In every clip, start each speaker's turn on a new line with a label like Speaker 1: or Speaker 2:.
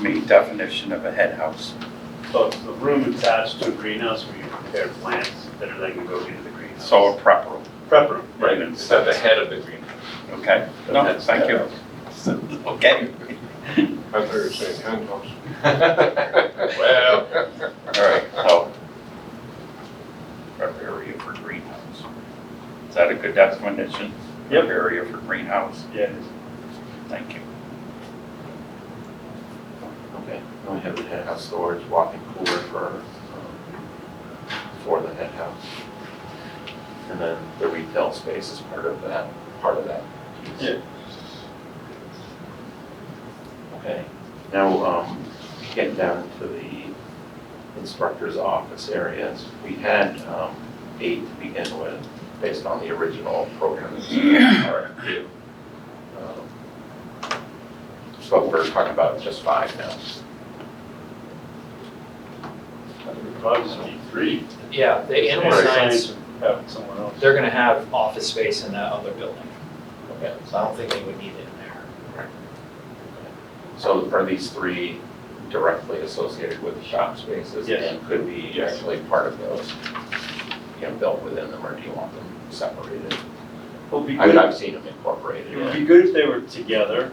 Speaker 1: main definition of a head house.
Speaker 2: So it's the room attached to a greenhouse where you prepare plants that are then going to go into the greenhouse.
Speaker 1: So a prep room,
Speaker 2: Prep room, right,
Speaker 3: Right, it's at the head of the greenhouse.
Speaker 1: okay? No,
Speaker 2: That's-
Speaker 1: thank you. Okay,
Speaker 3: I thought you were saying penthouse. Well,
Speaker 1: all right, so. Prep area for greenhouse. Is that a good definition?
Speaker 2: Yep.
Speaker 1: Prep area for greenhouse,
Speaker 2: yeah.
Speaker 1: thank you.
Speaker 4: Okay, and we have the head house storage, walk-in cooler for, um, for the head house. And then the retail space is part of that, part of that. piece. Okay, now, um, getting down to the instructor's office areas, we had, um, eight to begin with, based on the original program. that's in our RFQ. Um, So we're talking about just five now.
Speaker 2: It'd Probably be three.
Speaker 5: Yeah, the animal
Speaker 2: Right.
Speaker 5: science,
Speaker 2: would Have it somewhere else.
Speaker 5: they're gonna have office space in that other building,
Speaker 4: Okay.
Speaker 5: so I don't think they would need it in there.
Speaker 4: So are these three directly associated with the shop spaces?
Speaker 2: Yes.
Speaker 4: And could be
Speaker 2: Yes.
Speaker 4: actually part of those, you know, built within them, or do you want them separated?
Speaker 2: Well, it'd be
Speaker 4: I mean,
Speaker 2: good-
Speaker 4: I've seen them incorporated.
Speaker 2: It would be good if they were together,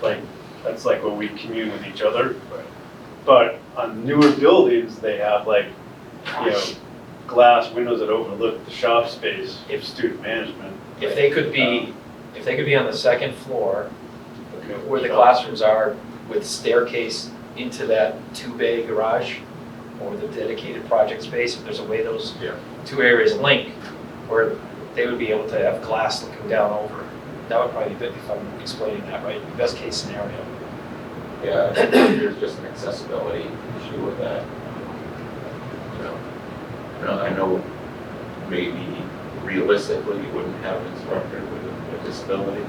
Speaker 2: like, that's like when we commune with each other. But on newer buildings, they have like, you know, glass windows that overlook the shop space for
Speaker 5: If-
Speaker 2: student management.
Speaker 5: If they could be, if they could be on the second floor where the classrooms are with staircase into that two-bay garage or the dedicated project space, if there's a way those
Speaker 3: Yeah.
Speaker 5: two areas link, where they would be able to have glass looking down over. That would probably be, if I'm explaining that right, best case scenario.
Speaker 4: Yeah, I think there's just an accessibility issue with that. You know, You know, I know maybe realistically you wouldn't have an instructor with a- with a disability,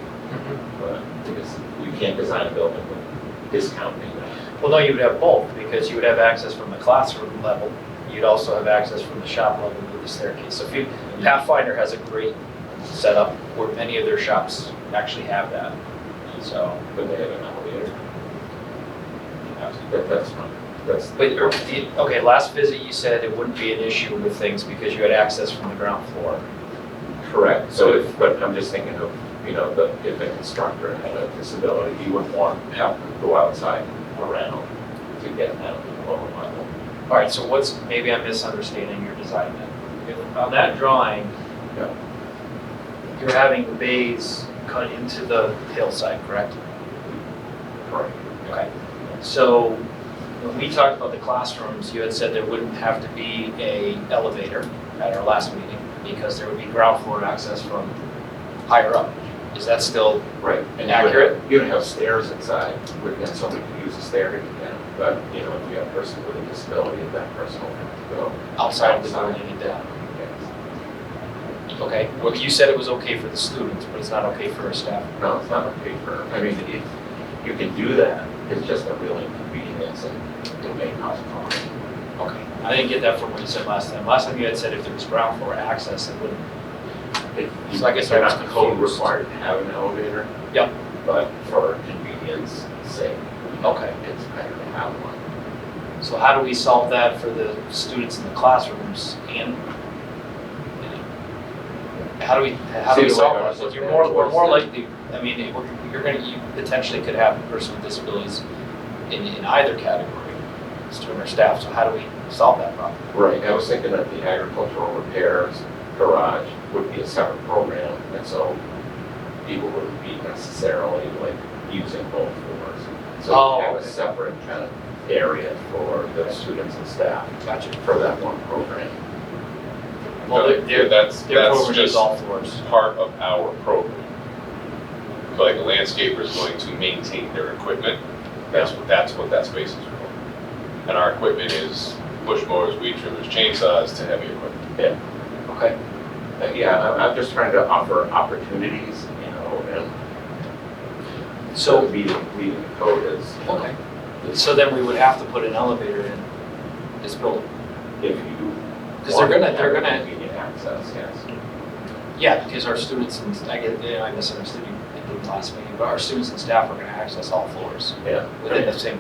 Speaker 4: but because you can't design a building with discounting that.
Speaker 5: Well, no, you would have both, because you would have access from the classroom level, you'd also have access from the shop level to the staircase. So if you, Pathfinder has a great setup where many of their shops actually have that, so.
Speaker 4: But they have an elevator,
Speaker 5: absolutely.
Speaker 4: that, that's fine, that's.
Speaker 5: But, or, the- okay, last visit you said it wouldn't be an issue with things because you had access from the ground floor.
Speaker 4: Correct, so if, but I'm just thinking of, you know, the, if an instructor had a disability, you wouldn't want to have to go outside around to get down to the lower level.
Speaker 5: All right, so what's, maybe I'm misunderstanding your design then. If- On that drawing,
Speaker 4: Yeah.
Speaker 5: you're having the bays cut into the hillside, correct?
Speaker 4: Correct.
Speaker 5: Okay. So when we talked about the classrooms, you had said there wouldn't have to be a elevator at our last meeting because there would be ground floor access from higher up. Is that still,
Speaker 4: Right. And
Speaker 5: Accurate.
Speaker 4: You would have stairs inside, where then somebody could use a stair to get down, but, you know, if you have a person with a disability, that person will have to go.
Speaker 5: outside of the building and down? Okay, well, you said it was okay for the students, but it's not okay for our staff.
Speaker 4: No, it's not on paper, I mean, if you can do that, it's just a real inconvenience and it may cause harm.
Speaker 5: Okay, I didn't get that from what you said last time. Last time you had said if there was ground floor access, it wouldn't. So I guess I
Speaker 4: They're
Speaker 5: was
Speaker 4: not code
Speaker 5: confused.
Speaker 4: required to have an elevator.
Speaker 5: Yep.
Speaker 4: But for convenience sake,
Speaker 5: Okay,
Speaker 4: it's better to have one.
Speaker 5: so how do we solve that for the students in the classrooms and? How do we, how do we
Speaker 4: See,
Speaker 5: solve
Speaker 4: like,
Speaker 5: that?
Speaker 4: like,
Speaker 5: You're more, we're more
Speaker 4: like-
Speaker 5: likely, I mean, it- we're- you're gonna, you potentially could have a person with disabilities in, in either category, student or staff, so how do we solve that problem?
Speaker 4: Right, I was thinking that the agricultural repairs garage would be a separate program, and so people wouldn't be necessarily like using both floors. So
Speaker 5: Oh,
Speaker 4: you have a
Speaker 5: okay.
Speaker 4: separate kind of area for the students and staff
Speaker 5: Gotcha.
Speaker 4: for that one program.
Speaker 5: Well, they're,
Speaker 3: Yeah,
Speaker 5: they're,
Speaker 3: that's,
Speaker 5: they're
Speaker 3: that's
Speaker 5: over
Speaker 3: just
Speaker 5: all floors.
Speaker 3: part of our program. So, Like a landscaper is going to maintain their equipment, that's what, that's what that space is for. And our equipment is bush mowers, weed trimmers, chainsaws to heavy equipment.
Speaker 5: Okay,
Speaker 4: Uh, Yeah, I'm, I'm just trying to offer opportunities, you know, and so
Speaker 5: so
Speaker 4: meeting, meeting the code is, you know,
Speaker 5: Okay, so then we would have to put an elevator in this building,
Speaker 4: if you.
Speaker 5: because they're gonna, they're
Speaker 4: want to
Speaker 5: gonna,
Speaker 4: have Convenient access, yes.
Speaker 5: yeah, because our students, and I get, you know, I misunderstood you, I think last meeting, but our students and staff are gonna access all floors
Speaker 4: yeah.
Speaker 5: within the same